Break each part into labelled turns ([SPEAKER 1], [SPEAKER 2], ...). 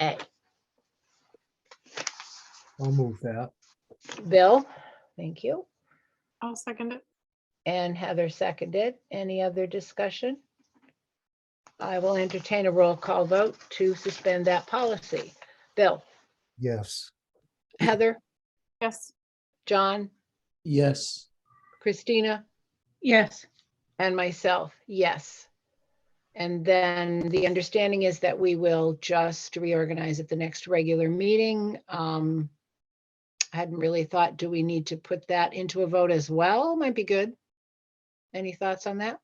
[SPEAKER 1] A.
[SPEAKER 2] I'll move that.
[SPEAKER 1] Bill, thank you.
[SPEAKER 3] I'll second it.
[SPEAKER 1] And Heather seconded. Any other discussion? I will entertain a roll call vote to suspend that policy. Bill,
[SPEAKER 2] Yes.
[SPEAKER 1] Heather,
[SPEAKER 3] Yes,
[SPEAKER 1] John,
[SPEAKER 2] Yes.
[SPEAKER 1] Christina,
[SPEAKER 4] yes,
[SPEAKER 1] and myself, yes. And then the understanding is that we will just reorganize at the next regular meeting. Um, I hadn't really thought, do we need to put that into a vote as well? Might be good. Any thoughts on that?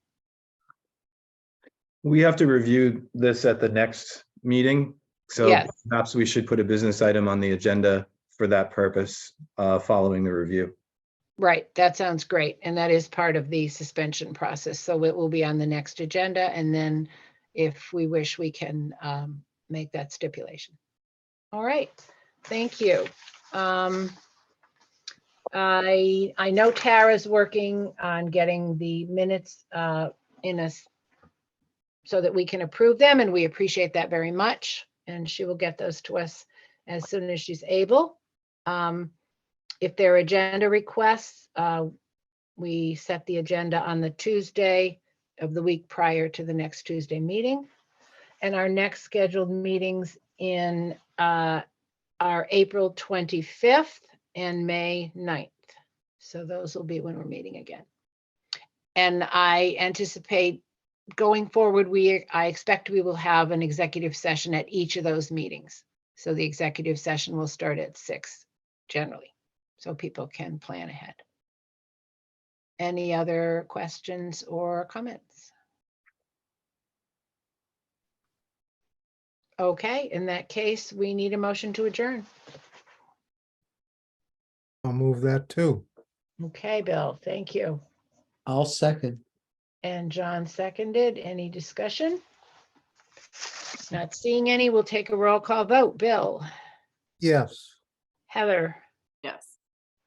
[SPEAKER 5] We have to review this at the next meeting. So
[SPEAKER 1] Yes.
[SPEAKER 5] perhaps we should put a business item on the agenda for that purpose, uh, following the review.
[SPEAKER 1] Right, that sounds great, and that is part of the suspension process, so it will be on the next agenda, and then if we wish, we can um, make that stipulation. All right, thank you. Um, I, I know Tara's working on getting the minutes uh, in us so that we can approve them, and we appreciate that very much, and she will get those to us as soon as she's able. Um, if there are agenda requests, uh, we set the agenda on the Tuesday of the week prior to the next Tuesday meeting. And our next scheduled meetings in uh, are April 25th and May 9th. So those will be when we're meeting again. And I anticipate going forward, we, I expect we will have an executive session at each of those meetings. So the executive session will start at six generally so people can plan ahead. Any other questions or comments? Okay, in that case, we need a motion to adjourn.
[SPEAKER 2] I'll move that too.
[SPEAKER 1] Okay, Bill, thank you.
[SPEAKER 6] I'll second.
[SPEAKER 1] And John seconded. Any discussion? Not seeing any. We'll take a roll call vote. Bill,
[SPEAKER 2] Yes.
[SPEAKER 1] Heather,
[SPEAKER 3] yes.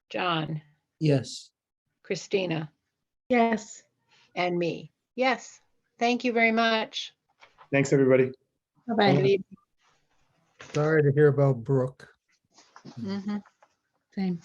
[SPEAKER 1] John,
[SPEAKER 6] Yes.
[SPEAKER 1] Christina,
[SPEAKER 4] yes.
[SPEAKER 1] and me. Yes, thank you very much.
[SPEAKER 5] Thanks, everybody.
[SPEAKER 1] Good
[SPEAKER 4] Bye-bye.
[SPEAKER 1] evening.
[SPEAKER 2] Sorry to hear about Brooke.
[SPEAKER 1] Mhm.
[SPEAKER 4] Same.